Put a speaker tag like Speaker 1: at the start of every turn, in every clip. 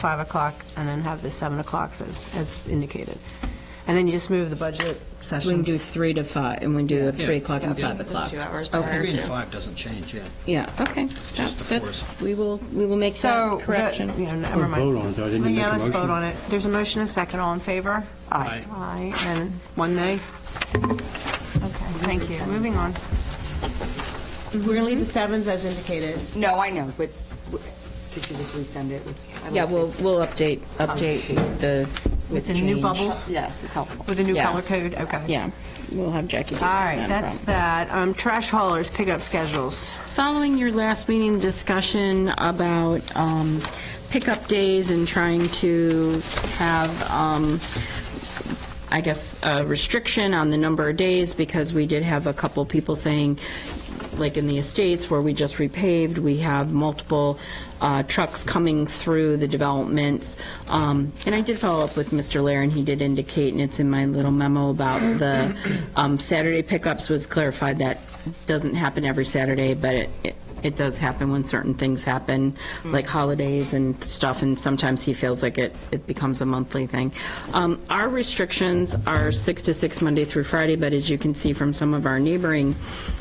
Speaker 1: 5 o'clock and then have the 7 o'clock as, as indicated. And then you just move the budget
Speaker 2: We can do
Speaker 1: sessions.
Speaker 2: three to five, and we can do a three o'clock and
Speaker 3: Yeah.
Speaker 2: five
Speaker 3: Just
Speaker 2: o'clock.
Speaker 3: two hours prior
Speaker 2: Okay,
Speaker 3: to- Three
Speaker 2: yeah.
Speaker 3: and and
Speaker 4: five doesn't change, yeah.
Speaker 2: Yeah, okay.
Speaker 4: Just the
Speaker 2: That's-
Speaker 4: fourth.
Speaker 2: We will, we will make
Speaker 1: So,
Speaker 2: that
Speaker 1: the-
Speaker 2: correction.
Speaker 1: you know, never
Speaker 5: Or
Speaker 1: mind.
Speaker 5: vote on it, though. Didn't you
Speaker 1: Yeah,
Speaker 5: make a
Speaker 1: let's vote
Speaker 5: motion?
Speaker 1: on it. There's a motion and a second, all in favor?
Speaker 4: Aye.
Speaker 1: Aye, and one nay? Okay, thank you, moving on. We're gonna leave the sevens as indicated.
Speaker 3: No, I know, but w- could you just resend it? I like
Speaker 2: Yeah, we'll,
Speaker 3: this.
Speaker 2: we'll update, update the,
Speaker 1: With
Speaker 2: with
Speaker 1: the new
Speaker 2: change.
Speaker 1: bubbles,
Speaker 3: Yes, it's helpful.
Speaker 1: with the new
Speaker 2: Yeah.
Speaker 1: color code, okay.
Speaker 2: Yeah, we'll have Jackie
Speaker 1: All
Speaker 2: do that. not
Speaker 1: right,
Speaker 2: a
Speaker 1: that's
Speaker 2: problem.
Speaker 1: that. Um, Trash haulers pickup schedules.
Speaker 2: Following your last meeting discussion about um, pickup days and trying to have, um, I guess, a restriction on the number of days, because we did have a couple people saying, like in the estates where we just repaved, we have multiple uh, trucks coming through the developments. Um, And I did follow up with Mr. Lair, and he did indicate, and it's in my little memo about the um, Saturday pickups was clarified that doesn't happen every Saturday, but it- it, it does happen when certain things happen,
Speaker 1: Mm.
Speaker 2: like holidays and stuff, and sometimes he feels like it, it becomes a monthly thing. Um, Our restrictions are six to six Monday through Friday, but as you can see from some of our neighboring,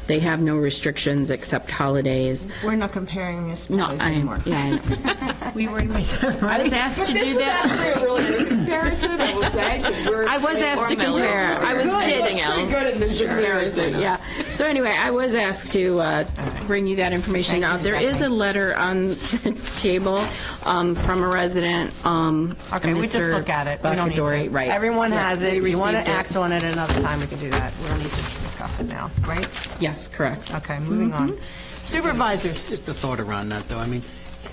Speaker 2: they have no restrictions except holidays.
Speaker 1: We're not comparing this
Speaker 2: No,
Speaker 1: matters anymore.
Speaker 2: I, yeah, I know.
Speaker 1: We were,
Speaker 2: I was asked to do that.
Speaker 3: actually a really good comparison, I would say, 'cause we're-
Speaker 2: I was asked to compare. I was
Speaker 3: Anything else.
Speaker 2: did.
Speaker 3: in this comparison.
Speaker 2: Yeah. So anyway, I was asked to uh, bring you that information. Now, there is a letter on the table um, from a resident. um,
Speaker 1: okay, we just
Speaker 2: Mr.
Speaker 1: look at it. We don't need to.
Speaker 2: Bacadori, Right.
Speaker 1: Everyone
Speaker 2: Yeah,
Speaker 1: has
Speaker 2: we
Speaker 1: it. If you want
Speaker 2: received
Speaker 1: to
Speaker 2: it.
Speaker 1: act on it another time, we can do that. We don't need to discuss it now, right?
Speaker 2: Yes, correct.
Speaker 1: Okay, moving on.
Speaker 2: Mm-hmm.
Speaker 1: Supervisors,
Speaker 4: Just a thought around that, though. I mean,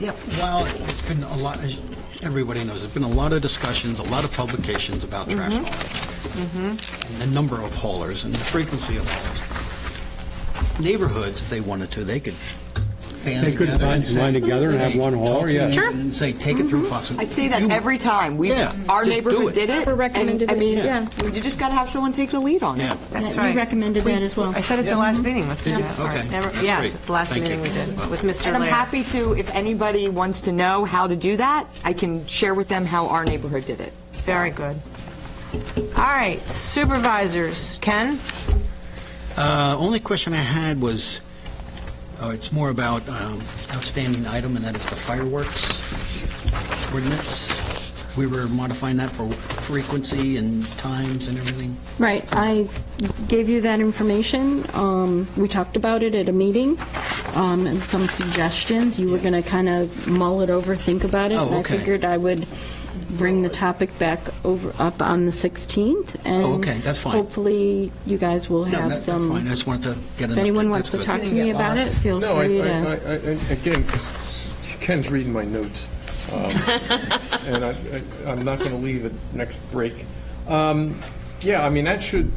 Speaker 1: Yep.
Speaker 4: while it's been a lot, as everybody knows, there's been a lot of discussions, a lot of publications about
Speaker 3: Mm-hmm.
Speaker 4: trash haulers. And the number of haulers and the frequency of haulers. Neighborhoods, if they wanted to, they could band
Speaker 5: They could
Speaker 4: together and
Speaker 5: bind-
Speaker 4: say.
Speaker 5: bind together and have
Speaker 4: Hey,
Speaker 5: one
Speaker 4: talk
Speaker 5: hauler,
Speaker 4: to
Speaker 5: yeah.
Speaker 4: me
Speaker 5: Sure.
Speaker 4: And say, take it through Foxborough.
Speaker 3: Mm-hmm. I see that every time. We,
Speaker 4: Yeah,
Speaker 3: our
Speaker 4: just do
Speaker 3: neighborhood
Speaker 4: it.
Speaker 3: did it.
Speaker 2: We're recommended
Speaker 3: and, I
Speaker 2: it,
Speaker 3: mean,
Speaker 2: yeah.
Speaker 3: you just got to have someone take the lead on
Speaker 4: Yeah.
Speaker 3: it.
Speaker 1: that's
Speaker 2: You
Speaker 1: right.
Speaker 2: recommended
Speaker 1: We-
Speaker 2: that as well.
Speaker 1: I said at the last meeting, let's do
Speaker 4: Did you?
Speaker 1: that. All right,
Speaker 4: Okay.
Speaker 1: never-
Speaker 4: That's
Speaker 1: Yes,
Speaker 4: great.
Speaker 1: at the last
Speaker 4: Thank
Speaker 1: meeting
Speaker 4: you.
Speaker 1: we did with Mr.
Speaker 3: And I'm
Speaker 1: Lair.
Speaker 3: happy to, if anybody wants to know how to do that, I can share with them how our neighborhood did it.
Speaker 1: Very good. All right, supervisors, Ken?
Speaker 4: Uh, Only question I had was, oh, it's more about um, outstanding item, and that is the fireworks ordinance. We were modifying that for frequency and times and everything.
Speaker 2: Right, I gave you that information. Um, We talked about it at a meeting, um, and some suggestions. You were going to kind of mull it over, think about it.
Speaker 4: Oh,
Speaker 2: And I
Speaker 4: okay.
Speaker 2: figured I would bring the topic back over, up on the 16th.
Speaker 4: Oh, okay, that's fine.
Speaker 2: And hopefully, you guys will
Speaker 4: No, that-
Speaker 2: have
Speaker 4: that's
Speaker 2: some...
Speaker 4: fine, I just wanted to get an update.
Speaker 2: If anyone wants to
Speaker 4: That's
Speaker 2: talk
Speaker 4: good.
Speaker 2: to me about it, feel
Speaker 6: No, I,
Speaker 2: free
Speaker 6: I, I,
Speaker 2: to...
Speaker 6: I- I- again, s- s- Ken's reading my notes, um, and I, I- I'm not going to leave at next break. Um, Yeah, I mean, that should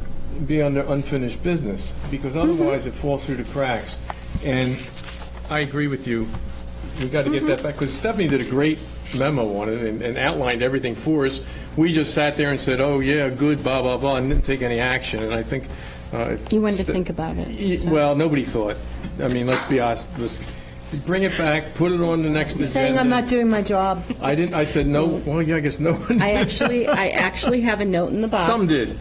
Speaker 6: be under unfinished business, because otherwise it falls through the cracks. And I agree with you, we've got to get that back, because Stephanie did a great memo on it and- and outlined everything for us. We just sat there and said, oh, yeah, good, blah, blah, blah, and didn't take any action, and I think... uh, if
Speaker 2: You wanted to
Speaker 6: Ste-
Speaker 2: think about it.
Speaker 6: Y- Well, nobody thought. I mean, let's be honest. let's- Bring it back, put it on the next agenda.
Speaker 1: doing my job.
Speaker 6: I didn't, I said no, well, yeah, I guess no one.
Speaker 2: I actually, I actually have a note in the box.
Speaker 6: Some did.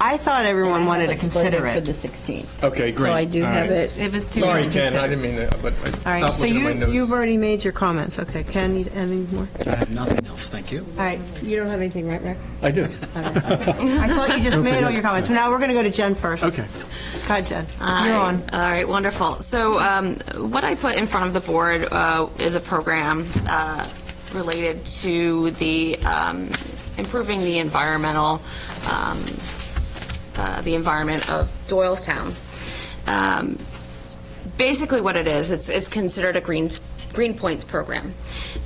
Speaker 1: I thought everyone wanted to consider
Speaker 2: For the
Speaker 1: it.
Speaker 2: 16th.
Speaker 6: Okay, great.
Speaker 2: So I do
Speaker 6: All
Speaker 2: have
Speaker 6: right.
Speaker 2: it.
Speaker 1: It was too.
Speaker 6: Sorry, Ken, I didn't mean that, but I
Speaker 1: All right,
Speaker 6: stopped
Speaker 1: so
Speaker 6: looking at my
Speaker 1: you,
Speaker 6: notes.
Speaker 1: you've already made your comments. Okay, Ken, you, anything more?
Speaker 4: I have nothing else, thank you.
Speaker 1: All right, you don't have anything, right, Rick?
Speaker 6: I do.
Speaker 1: I thought you just made all your comments. Now we're going to go to Jen first.
Speaker 6: Okay.
Speaker 1: Go ahead, Jen.
Speaker 7: All
Speaker 1: You're
Speaker 7: right.
Speaker 1: on.
Speaker 7: All right, wonderful. So um, what I put in front of the board uh, is a program uh, related to the um, improving the environmental, um, uh, the environment of Doylestown. Um, basically what it is, it's, it's considered a green, green points program.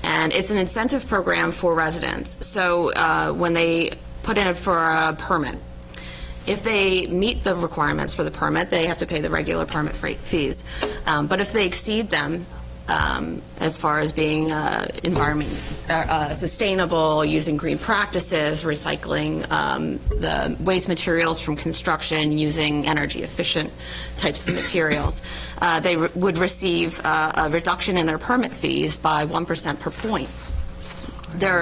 Speaker 7: And it's an incentive program for residents. So uh, when they put in for a permit, if they meet the requirements for the permit, they have to pay the regular permit fre- fees. Um, But if they exceed them, um, as far as being uh, environment, uh, uh, sustainable, using green practices, recycling um, the waste materials from construction, using energy-efficient types of materials. Uh, They re- would receive uh, a reduction in their permit fees by 1% per point. There